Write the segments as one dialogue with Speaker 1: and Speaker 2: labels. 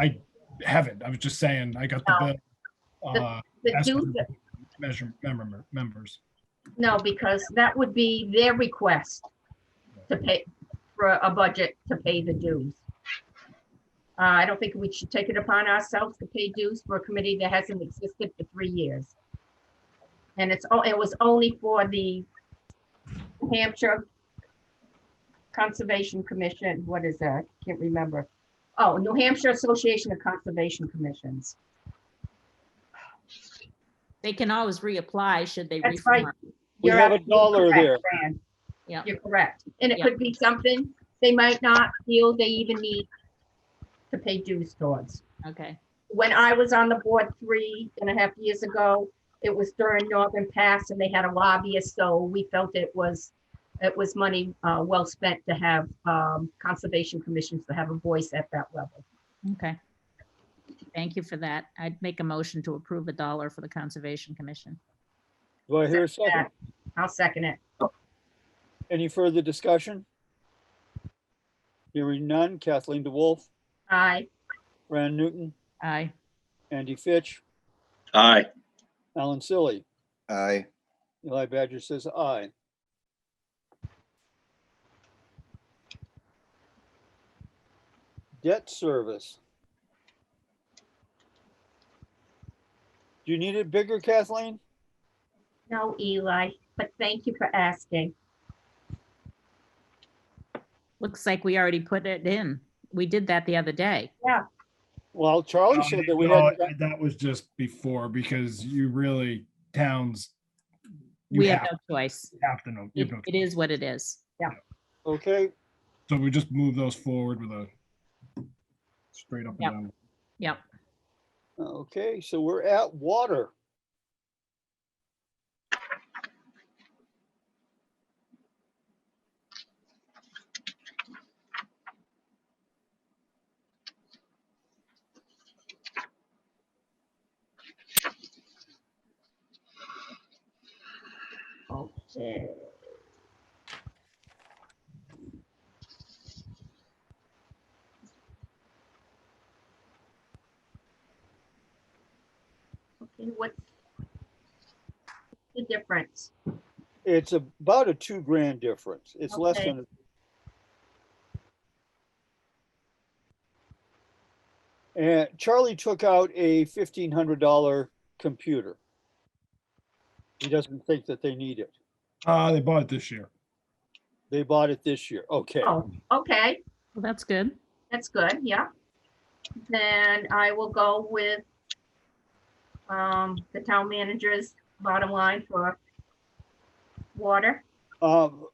Speaker 1: I haven't. I was just saying, I got the bill. uh,
Speaker 2: The
Speaker 1: as per
Speaker 2: dues,
Speaker 1: Measure, member, members.
Speaker 2: no, because that would be their request to pay, for a budget to pay the dues. Uh, I don't think we should take it upon ourselves to pay dues for a committee that hasn't existed for three years. And it's, o- it was only for the Hampshire Conservation Commission, what is that? Can't remember. Oh, New Hampshire Association of Conservation Commissions.
Speaker 3: They can always reapply should they.
Speaker 2: That's right.
Speaker 3: reform.
Speaker 2: You're
Speaker 4: have a
Speaker 2: absolutely
Speaker 4: dollar
Speaker 2: correct,
Speaker 4: there.
Speaker 2: Fran.
Speaker 3: Yeah.
Speaker 2: You're correct. And it
Speaker 3: Yeah.
Speaker 2: could be something they might not feel they even need to pay dues towards.
Speaker 3: Okay,
Speaker 2: When I was on the board three and a half years ago, it was during Northern Pass and they had a lobbyist, so we felt it was, it was money uh, well spent to have um, conservation commissions to have a voice at that level.
Speaker 3: okay. Thank you for that. I'd make a motion to approve a dollar for the Conservation Commission.
Speaker 4: Do I hear a second?
Speaker 2: I'll second it.
Speaker 4: Any further discussion? Hearing none. Kathleen DeWolf,
Speaker 2: Aye.
Speaker 4: Fran Newton,
Speaker 3: Aye.
Speaker 4: Andy Fitch,
Speaker 5: Aye.
Speaker 4: Alan Silly.
Speaker 6: Aye.
Speaker 4: Eli Badger says aye. Debt service. Do you need it bigger, Kathleen?
Speaker 2: No, Eli, but thank you for asking.
Speaker 3: Looks like we already put it in. We did that the other day.
Speaker 4: Well, Charlie said Oh, that we
Speaker 1: No,
Speaker 4: had,
Speaker 1: Um, That was just before because you really, towns,
Speaker 3: We
Speaker 1: you
Speaker 3: have
Speaker 1: have
Speaker 3: no choice.
Speaker 1: have to know. you
Speaker 3: It
Speaker 1: have
Speaker 3: it
Speaker 1: to-
Speaker 3: is what it is.
Speaker 4: okay,
Speaker 1: So we just move those forward with a straight up
Speaker 3: Yep.
Speaker 1: and down.
Speaker 3: Yep.
Speaker 4: okay, so we're at water.
Speaker 2: Okay. Okay, what's the difference?
Speaker 4: It's about a two grand difference. It's less
Speaker 2: Okay.
Speaker 4: than. And Charlie took out a fifteen hundred dollar computer. He doesn't think that they need it.
Speaker 1: Uh, they bought it this year.
Speaker 4: They bought it this year. Okay,
Speaker 2: Oh, okay,
Speaker 3: Well, that's good.
Speaker 2: that's good, yeah. Then I will go with um, the town manager's bottom line for water,
Speaker 4: um,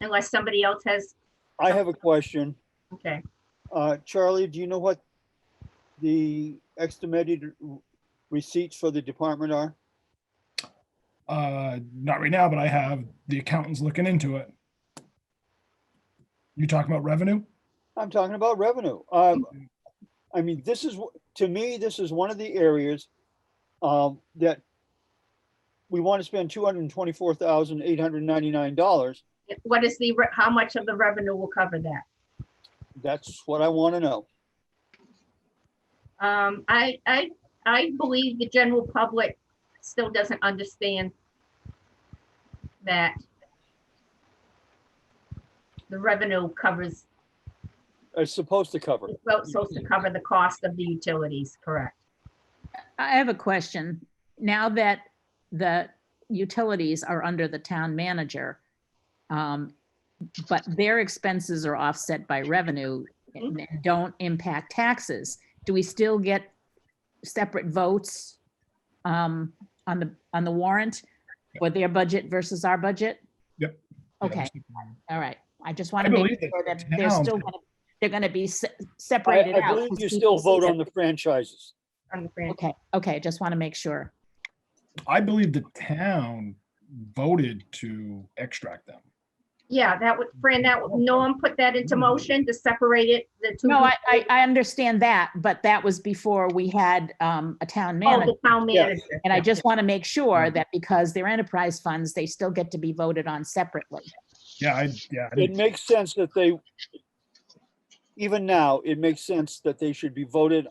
Speaker 2: unless somebody else has,
Speaker 4: I have a question.
Speaker 2: okay.
Speaker 4: Uh, Charlie, do you know what the estimated receipts for the department are?
Speaker 1: Uh, not right now, but I have the accountants looking into it. You talking about revenue?
Speaker 4: I'm talking about revenue. Um, I mean, this is, wh- to me, this is one of the areas um, that we want to spend two hundred and twenty-four thousand, eight hundred and ninety-nine dollars.
Speaker 2: What is the, re- how much of the revenue will cover that?
Speaker 4: That's what I want to know.
Speaker 2: Um, I, I, I believe the general public still doesn't understand that the revenue covers,
Speaker 4: It's supposed to cover.
Speaker 2: it's supposed to cover the cost of the utilities, correct?
Speaker 3: I have a question. Now that the utilities are under the town manager, um, but their expenses are offset by revenue and don't impact taxes, do we still get separate votes um, on the, on the warrant for their budget versus our budget?
Speaker 1: Yep.
Speaker 3: Okay, all right. I just want
Speaker 1: I
Speaker 3: to
Speaker 1: believe that
Speaker 3: make sure that
Speaker 1: the
Speaker 3: they're
Speaker 1: town-
Speaker 3: still, gonna- they're going to be se-
Speaker 4: I,
Speaker 3: separated
Speaker 4: I
Speaker 3: out.
Speaker 4: believe you still vote on the franchises.
Speaker 2: On the grant.
Speaker 3: Okay, okay, just want to make sure.
Speaker 1: I believe the town voted to extract them.
Speaker 2: Yeah, that would, Fran, that, would Norm put that into motion to separate it, the two.
Speaker 3: Mm-hmm. No, I, I, I understand that, but that was before we had um, a town
Speaker 2: Oh,
Speaker 3: manager.
Speaker 2: the town
Speaker 4: Yeah.
Speaker 2: manager.
Speaker 3: And I just want to make sure that because they're enterprise funds, they still get to be voted on separately.
Speaker 1: Yeah, I, yeah. I
Speaker 4: It
Speaker 1: didn't-
Speaker 4: makes sense that they even now, it makes sense that they should be voted